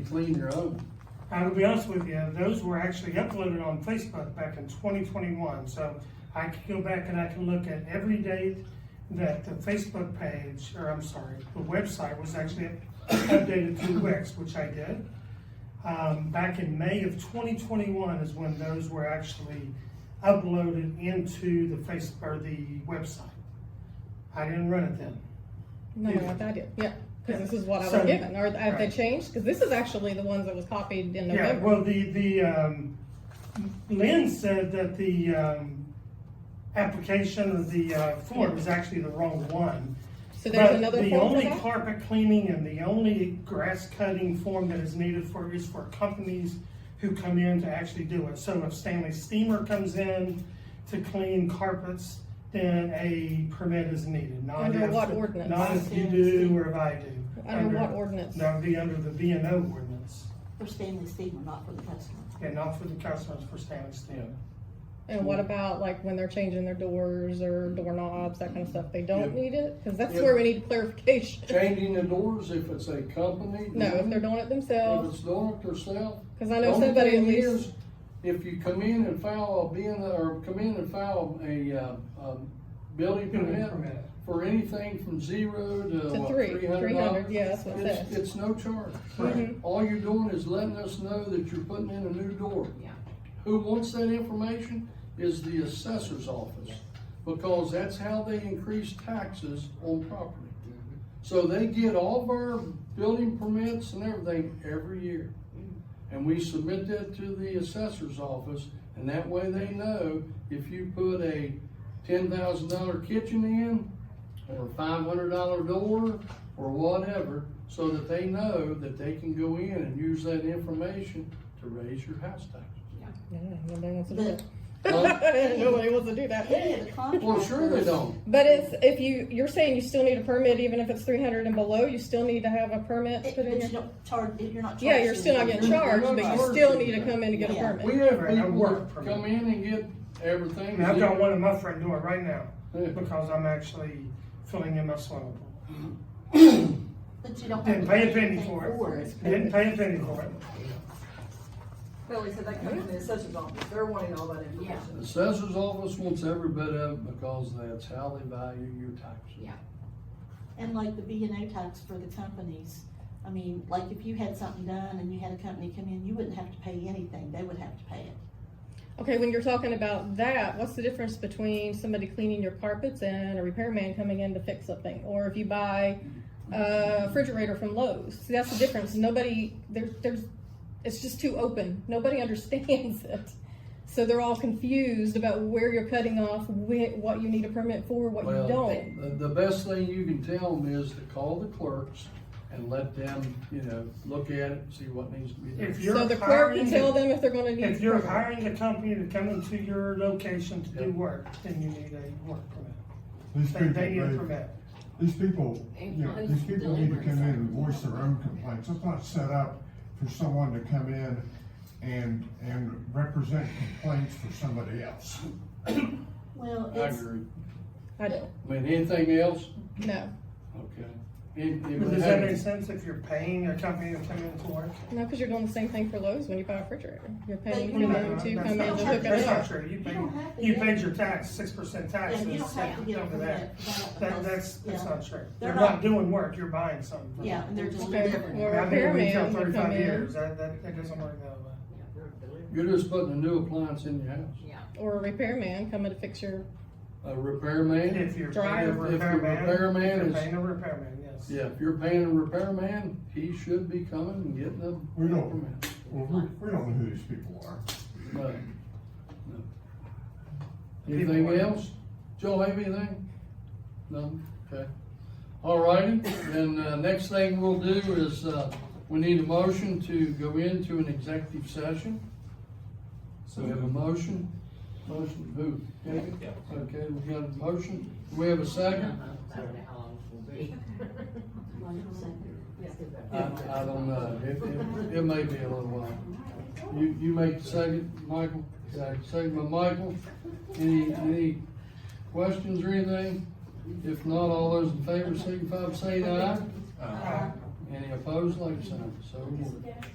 You clean your own. Now, to be honest with you, those were actually uploaded on Facebook back in twenty twenty-one, so I can go back and I can look at every date that the Facebook page, or I'm sorry, the website was actually updated to Wix, which I did. Um, back in May of twenty twenty-one is when those were actually uploaded into the face, or the website. I didn't run it then. No, Yeah. no, what I did, yeah, because this is what I So- was given, or have they right. changed? Because this is actually the ones that was copied in Yeah, November. well, the, the, um, Lynn said that the, um, application of the, uh, form is actually the wrong one. So there's But another form for The only that? carpet cleaning and the only grass cutting form that is needed for, is for companies who come in to actually do it. So if Stanley Steamer comes in to clean carpets, then a permit is needed, not Under if- what ordinance? Not if you do or if I do. Under what ordinance? That would be under the B and O ordinance. For Stanley Steamer, not for the customer. And not for the customers for Stanley Steel. And what about like when they're changing their doors or doorknobs, that kind of stuff? They don't Yeah. need it? Because that's Yeah. where we need clarification. Changing the doors if it's a company. No, if they're doing it If themselves, it's doing it yourself. because I know somebody at least, If you come in and file a being, or come in and file a, uh, um, building Building permit permit. for anything from zero to to what, three, three hundred three hundred, dollars? yeah, that's what it It's, says. it's no charge. Mhm. All you're doing is letting us know that you're putting in a new door. Yeah. Who wants that information is the assessor's office, because that's how they increase taxes on property. So they get all of our building permits and everything every year. And we submit that to the assessor's office, and that way they know if you put a ten thousand dollar kitchen in, or a five hundred dollar door, or whatever, so that they know that they can go in and use that information to raise your house tax. Yeah, nobody wants to do But- that. Nobody wants to do Any of that. the contractors. Well, sure they don't. But it's, if you, you're saying you still need a permit, even if it's three hundred and below, you still need to have a permit It- put in But you your. don't charge, you're not charging. Yeah, you're still not getting You're- charged, you're but not you charged still with need to that. come in to get a Yeah. permit. We have Right, I people work come permit. in and get I everything. mean, I've got one in my front door right now Yeah. because I'm actually filling in my swimming pool. But you don't. have Didn't to pay a pay penny anything for it. it. Didn't pay a penny for it. Well, he said that comes in the assessor's office, they're wanting all that information. The assessor's office wants every bit of it because that's how they value your taxes. And like the B and O tax for the companies, I mean, like if you had something done and you had a company come in, you wouldn't have to pay anything, they would have to pay it. Okay, when you're talking about that, what's the difference between somebody cleaning your carpets and a repairman coming in to fix something? Or if you buy a refrigerator from Lowe's? See, that's the difference. Nobody, there's, there's, it's just too open. Nobody understands it. So they're all confused about where you're cutting off, whi- what you need a permit for, what Well, you don't. The, the best thing you can tell them is to call the clerks and let them, you know, look at it, see what needs to be If done. you're So the clerk can hiring- tell them if they're gonna need. If you're a permit. hiring a company to come into your location to do Yep. work, then you need a work permit. These They, people, they need a they, permit. these people, you know, these people need to come in and voice their own complaints. It's not set up for someone to come in and, and represent complaints for somebody else. Well, I it's, agree. I don't, I mean, anything else? no, Okay. If- if But they Does that make have- sense if you're paying a company to come in to work? no, cause you're doing the same thing for Lowe's when you buy a refrigerator. You're paying But for you them That's to not come in to true. hook That's it not up. true. You You paid, don't have to you get- paid your tax, six percent yeah, taxes. you don't have to get over over that. that. that That, because- that's, that's yeah. not true. They're They're not not- doing work, you're buying something. from Yeah, them. and they're just Okay, delivering. well- Or a I've been in retail repairman would come Thirty-five in. years, that, that, that doesn't work that way. You're just putting a new appliance in your house. Or a repairman coming to fix your A repairman? If you're paying a Driver. If your repairman, repairman if you're is- paying a repairman, yes. Yeah, if you're paying a repairman, he should be coming and getting a We don't, permit. well, we, we don't know who these people are. No, no. Anything else? Joe, have anything? No, okay. All righty, then, uh, next thing we'll do is, uh, we need a motion to go into an executive session. So we have a motion, motion, who, David? Okay, we got a motion, we have a second? Uh-huh. I, I don't know, it, it, it may be a little while. You, you make the second, Michael, second, second by Michael. Any, any questions or anything? If not, all those in favor signify by saying aye. Uh, Any opposed, like sign, so ordered.